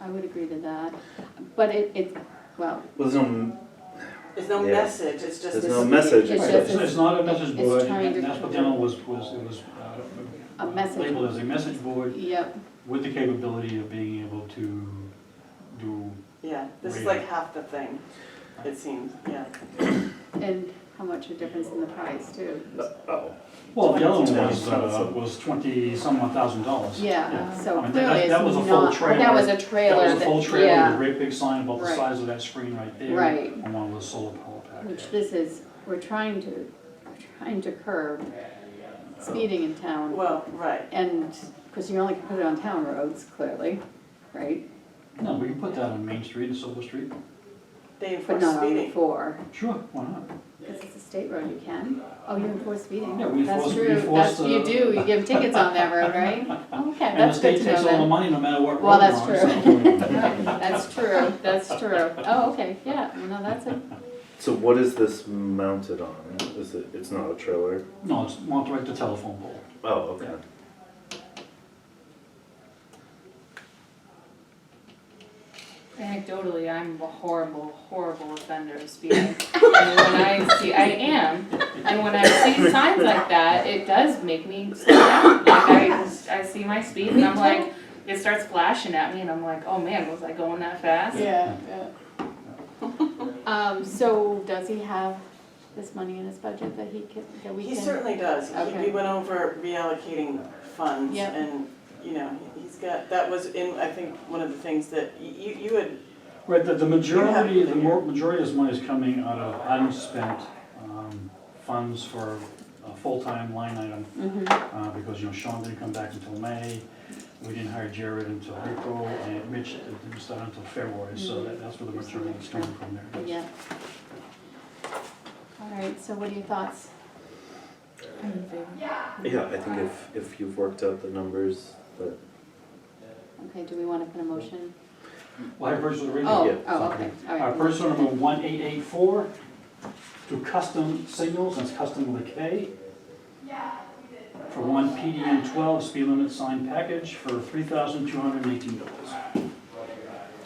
I would agree to that, but it, it, well, Well, there's no, There's no Yeah. message, it's just there's this. no message. It's as just- such. It's it's not a message It's board, trying to- and that's what demo was, was, it was uh, A message labeled as a message board yep, with the capability of being able to do, Yeah, this is Really. like half the thing, it seems, yeah. and how much a difference in the price too. Oh, well, the other one was, Twenty uh, thousand. was twenty some odd thousand dollars. Yeah, so I mean, that- clearly it's that was a full not, but that trailer. was a That trailer was a that, full trailer with a yeah, great big sign about the Right. size of that screen right there. Right. On one of the solar power packs. which this is, we're trying to, we're trying to curb speeding in town. Well, right, And, because you only can put it on town roads, clearly, right? No, we can put that on Main Street and Silver Street. they But enforce not on speeding. four, Sure, why not? because it's a state road, you can. Oh, you enforce speeding. Yeah, we That's enforce- we true, that's, enforce you the- do, you give tickets on that road, right? Okay, And the that's good to state know then. takes all the money no matter what road Well, we're that's on, so- true. That's true, that's true. Oh, okay, yeah, well, no, that's a, so what is this mounted on? Is it, it's not a trailer? No, it's not right to telephone pole. Oh, okay. Anecdotally, I'm a horrible, horrible offender of speeding. And when I see, I am, and when I see signs like that, it does make me slow down. Like I, I see my speed and I'm like, it starts flashing at me and I'm like, oh man, was I going that fast? yeah, yeah. Um, so does he have this money in his budget that he can, that we can? He certainly does, He- Okay. we went over reallocating funds Yep. and, you know, he- he's got, that was in, I think, one of the things that y- you, you had, Right, the, the majority, Yeah. the more, majority of this money is coming out of unspent, um, funds for a full-time line item, Mhm, uh, because, you know, Sean didn't come back until May, we didn't hire Jared until April, and Mitch didn't start until February, so that, that's where the majority is coming from there. yeah. All right, so what are your thoughts? Yeah, I think if, if you've worked out the numbers, that, Okay, do we wanna put a motion? Well, I personally read it. Oh, yeah, oh, okay, all Uh, right. person number one eight eight four, to custom signals, that's custom with a K. For one PDN twelve speed limit sign package for three thousand two hundred and eighteen dollars.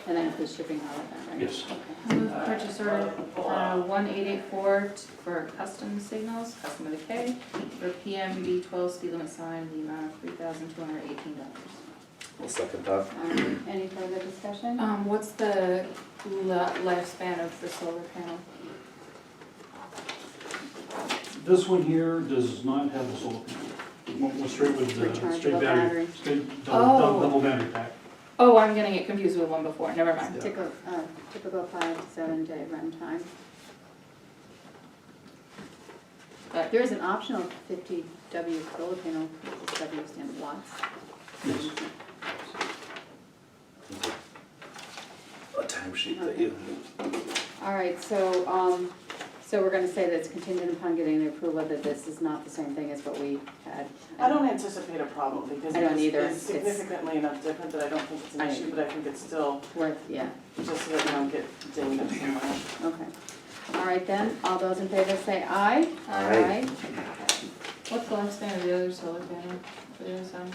And that includes shipping all of that, right? Yes. I Move purchase order, uh, one eight eight four for custom signals, custom with a K, for PMB twelve speed limit sign, the amount of three thousand two hundred eighteen dollars. I'll second that. All right, Um, any further discussion? Um, what's the li- lifespan of the solar panel? This one here does not have the solar panel. Went- went straight with the, straight Rechargeable battery, battery. straight double, Oh. dou- double battery pack. Oh, I'm gonna get confused with one before, never mind. Typical, uh, typical five to seven day runtime. But- There is an optional fifty W solar panel, which is W stand for watts. Yes. A timesheet that you, All right, so, um, so we're gonna say that's contingent upon getting the approval that this is not the same thing as what we had. I don't anticipate a problem because I don't it's either. it's It's- significantly enough different that I don't think it's an I- issue, but I think it's still, Worth, yeah, just so that we don't get dinged up somewhere. okay. All right then, all those in favor say aye. Aye. What's the lifespan of the other solar panel? for the other side?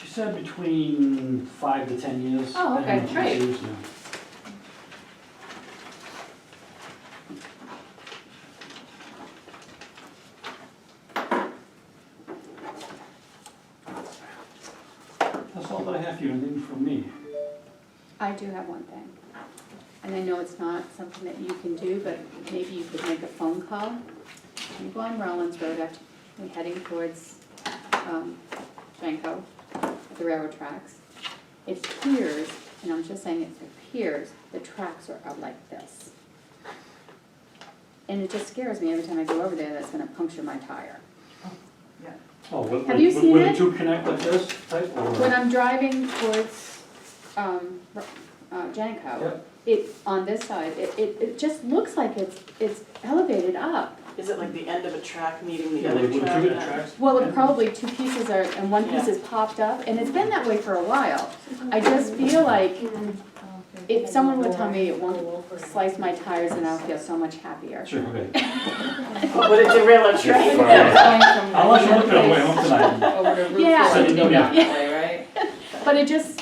She said between five to ten years. Oh, okay, depending on what she great. uses now. That's all that I have for you, anything from me? I do have one thing. And I know it's not something that you can do, but maybe you could make a phone call. You go on Rollins Road, act- we're heading towards um, Janko, at the railroad tracks. It appears, and I'm just saying it appears, the tracks are out like this. And it just scares me every time I go over there, that's gonna puncture my tire. Oh, would, Have you would- seen would the it? two connect like this type or? When I'm driving towards, um, R- uh, Janko, Yep. it, on this side, it, it, it just looks like it's, it's elevated up. Is it like the end of a track meeting the Yeah, other would- track? would two attract- Well, it probably two pieces are, and one piece Yeah. is popped up, and it's been that way for a while. I just feel like if someone would tell me it won't slice my tires, and I'll feel so much happier. Sure, okay. Oh, Would it derail a You're track? fine. Going from I'll let you look at it one away place home tonight. Over to Route Yeah. fourteen Yeah. down that way, right? But it just,